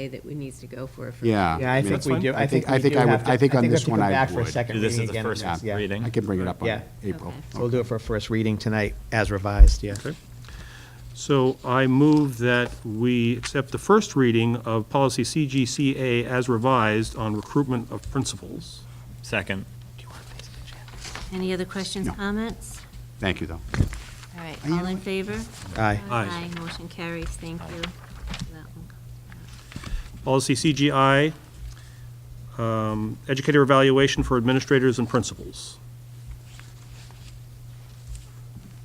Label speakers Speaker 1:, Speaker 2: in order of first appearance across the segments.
Speaker 1: say that we needs to go for it. for-
Speaker 2: Yeah.
Speaker 3: Yeah,
Speaker 2: mean,
Speaker 3: I think we
Speaker 2: that's
Speaker 3: do,
Speaker 2: fine.
Speaker 3: I think
Speaker 2: I
Speaker 3: we
Speaker 2: think
Speaker 3: do
Speaker 2: I would-
Speaker 3: have to.
Speaker 2: I think on
Speaker 3: we have
Speaker 2: this
Speaker 3: to
Speaker 2: one
Speaker 3: come
Speaker 2: I
Speaker 3: back for a
Speaker 2: would.
Speaker 3: second
Speaker 4: Do this
Speaker 3: reading
Speaker 4: as a
Speaker 3: again on
Speaker 4: first
Speaker 3: this, yeah.
Speaker 4: reading.
Speaker 2: I can bring it up on
Speaker 3: Yeah.
Speaker 2: April.
Speaker 1: Okay.
Speaker 3: So we'll do it for a first reading tonight as revised, yeah.
Speaker 5: Okay. So I move that we accept the first reading of policy CGCA as revised on recruitment of principals.
Speaker 4: Second.
Speaker 1: Any other questions,
Speaker 2: No.
Speaker 1: comments?
Speaker 2: Thank you, though.
Speaker 1: All right,
Speaker 2: you
Speaker 1: all in favor?
Speaker 3: Aye.
Speaker 5: Aye.
Speaker 1: motion carries, thank you. That one.
Speaker 5: Policy CGI, um, educator evaluation for administrators and principals.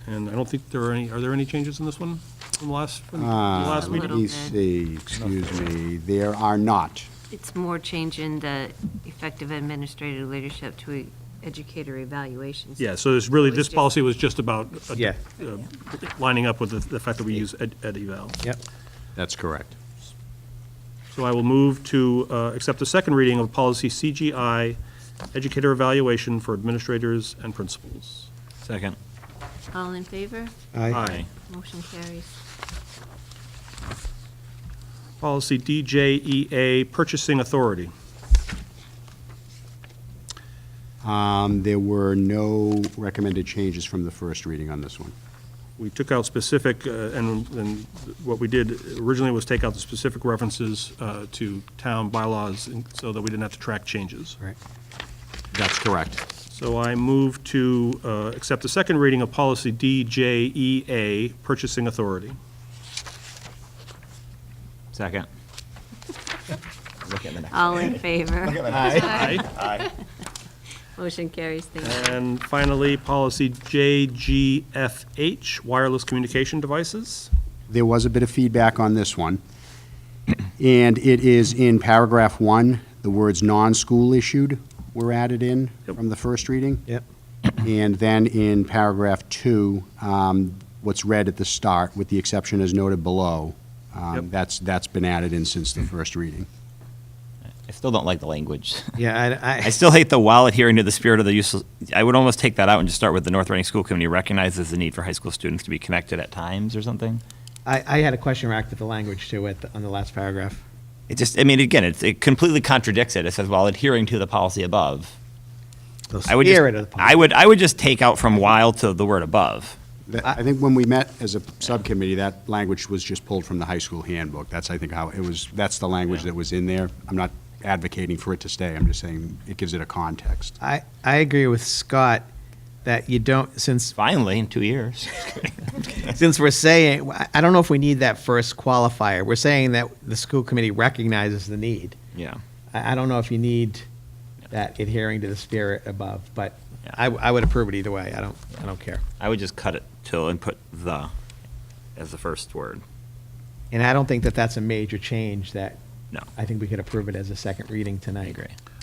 Speaker 5: And I don't think there are any, are there any changes in this one from last, from the last
Speaker 1: A
Speaker 2: Uh, Let
Speaker 1: little
Speaker 5: meeting?
Speaker 2: me
Speaker 1: bit.
Speaker 2: see, excuse me, there are not.
Speaker 1: It's more changing the effective administrative leadership to educator evaluations.
Speaker 5: Yeah, so it's really, this policy was just about uh,
Speaker 3: Yeah.
Speaker 5: uh, lining up with the- the fact that we use ed ed eval.
Speaker 3: Yep.
Speaker 2: That's correct.
Speaker 5: So I will move to uh, accept the second reading of policy CGI, educator evaluation for administrators and principals.
Speaker 4: Second.
Speaker 1: All in favor?
Speaker 3: Aye.
Speaker 1: Motion carries.
Speaker 5: Policy DJEA, purchasing authority.
Speaker 2: Um, There were no recommended changes from the first reading on this one.
Speaker 5: We took out specific, uh, and and what we did originally was take out the specific references uh, to town bylaws and- so that we didn't have to track changes.
Speaker 2: Right. That's correct.
Speaker 5: So I move to uh, accept the second reading of policy DJEA, purchasing authority.
Speaker 4: Second.
Speaker 1: All in favor?
Speaker 5: Aye.
Speaker 1: Motion carries, thank you.
Speaker 2: Uh,
Speaker 5: And finally, policy JGFH, wireless communication devices.
Speaker 2: There was a bit of feedback on this one, and it is in paragraph one, the words "non-school issued" were added in
Speaker 5: Yep.
Speaker 2: from the first reading.
Speaker 3: Yep.
Speaker 2: And then in paragraph two, um, what's read at the start, with the exception as noted below, um,
Speaker 5: Yep.
Speaker 2: that's, that's been added in since the first reading.
Speaker 4: I still don't like the language.
Speaker 3: Yeah, I,
Speaker 4: I still hate the while adhering to the spirit of the useless. I would almost take that out and just start with the North Reading School Committee recognizes the need for high school students to be connected at times or something.
Speaker 3: I, I had a question mark with the language too at, the- on the last paragraph.
Speaker 4: It just, I mean, again, it, it completely contradicts it. It says while adhering to the policy above.
Speaker 3: The
Speaker 4: I would just,
Speaker 3: spirit of the
Speaker 4: I would, I would just take out from while to the word above.
Speaker 2: That- I think when we met as a subcommittee, that language was just pulled from the high school handbook. That's, I think, how, it was, that's the language that was in there. I'm not advocating for it to stay, I'm just saying it gives it a context.
Speaker 3: I, I agree with Scott that you don't, since,
Speaker 4: Finally, in two years.
Speaker 3: since we're saying, I- I don't know if we need that first qualifier. We're saying that the school committee recognizes the need.
Speaker 4: Yeah.
Speaker 3: I, I don't know if you need that adhering to the spirit above, but
Speaker 4: Yeah.
Speaker 3: I, I would approve it either way. I don't, I don't care.
Speaker 4: I would just cut it till and put the as the first word.
Speaker 3: And I don't think that that's a major change that.
Speaker 4: No.
Speaker 3: I think we could approve it as a second reading tonight.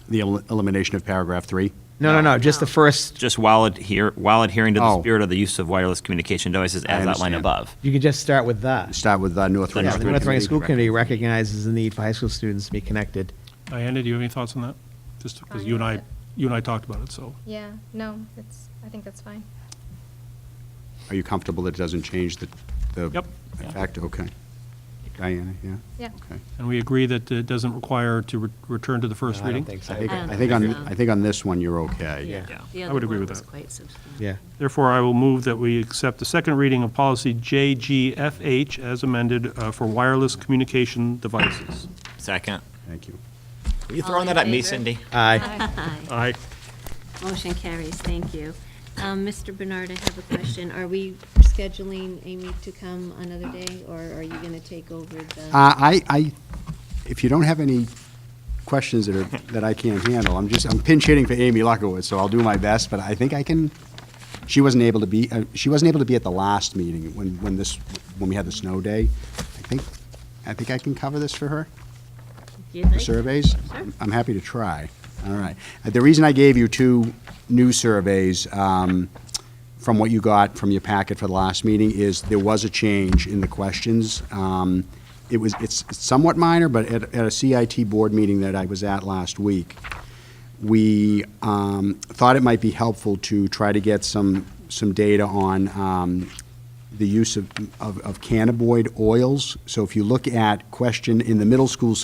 Speaker 2: The el- elimination of paragraph three?
Speaker 3: No, no, no, just the first,
Speaker 4: Just while adhere, while adhering to the
Speaker 2: Oh.
Speaker 4: spirit of the use of wireless communication devices
Speaker 2: I
Speaker 4: as
Speaker 2: understand.
Speaker 4: outlined above.
Speaker 3: you could just start with the.
Speaker 2: Start with uh, North
Speaker 4: Yeah,
Speaker 2: Reading
Speaker 3: Yeah,
Speaker 2: School
Speaker 3: the
Speaker 4: School
Speaker 3: North Reading
Speaker 2: Committee.
Speaker 3: School Committee recognizes the need for high school students to be connected.
Speaker 5: Diana, do you have any thoughts on that? Just because you and I, you and I talked about it, so.
Speaker 6: Yeah, no, it's, I think that's fine.
Speaker 2: Are you comfortable that it doesn't change the, the?
Speaker 5: Yep.
Speaker 2: the Fact, okay. Diana, yeah?
Speaker 6: Yeah.
Speaker 2: Okay.
Speaker 5: And we agree that it doesn't require to re- return to the first
Speaker 3: No, I
Speaker 5: reading?
Speaker 3: don't think
Speaker 2: I
Speaker 3: so.
Speaker 2: think,
Speaker 1: I
Speaker 2: I think on,
Speaker 1: don't know.
Speaker 2: I think on this one, you're okay.
Speaker 3: Yeah.
Speaker 1: The
Speaker 5: I
Speaker 1: other
Speaker 5: would agree
Speaker 1: one
Speaker 5: with
Speaker 1: was
Speaker 5: that.
Speaker 1: quite substantial.
Speaker 3: Yeah.
Speaker 5: Therefore, I will move that we accept the second reading of policy JGFH as amended uh, for wireless communication devices.
Speaker 4: Second.
Speaker 2: Thank you.
Speaker 4: Are you
Speaker 1: All throwing
Speaker 4: throwing
Speaker 1: in
Speaker 4: that at me,
Speaker 1: favor?
Speaker 4: Cindy?
Speaker 1: Cindy?
Speaker 3: Aye.
Speaker 5: Aye.
Speaker 1: Motion carries, thank you. Um, Mr. Bernard, I have a question. Are we scheduling Amy to come another day, or are you going to take over the?
Speaker 2: Uh, I, I, if you don't have any questions that are, that I can't handle, I'm just, I'm pinch hitting for Amy Luckowitz, so I'll do my best, but I think I can, she wasn't able to be, uh, she wasn't able to be at the last meeting when, when this, when we had the snow day. I think, I think I can cover this for her?
Speaker 1: You'd like-
Speaker 2: surveys? I'm happy to try. All right. Uh, The reason I gave you two new surveys um, from what you got from your packet for the last meeting is there was a change in the questions. Um, It was, it's somewhat minor, but at at a CIT board meeting that I was at last week, we um, thought it might be helpful to try to get some, some data on um, the use of, of of cannabinoid oils. So if you look at question in the middle school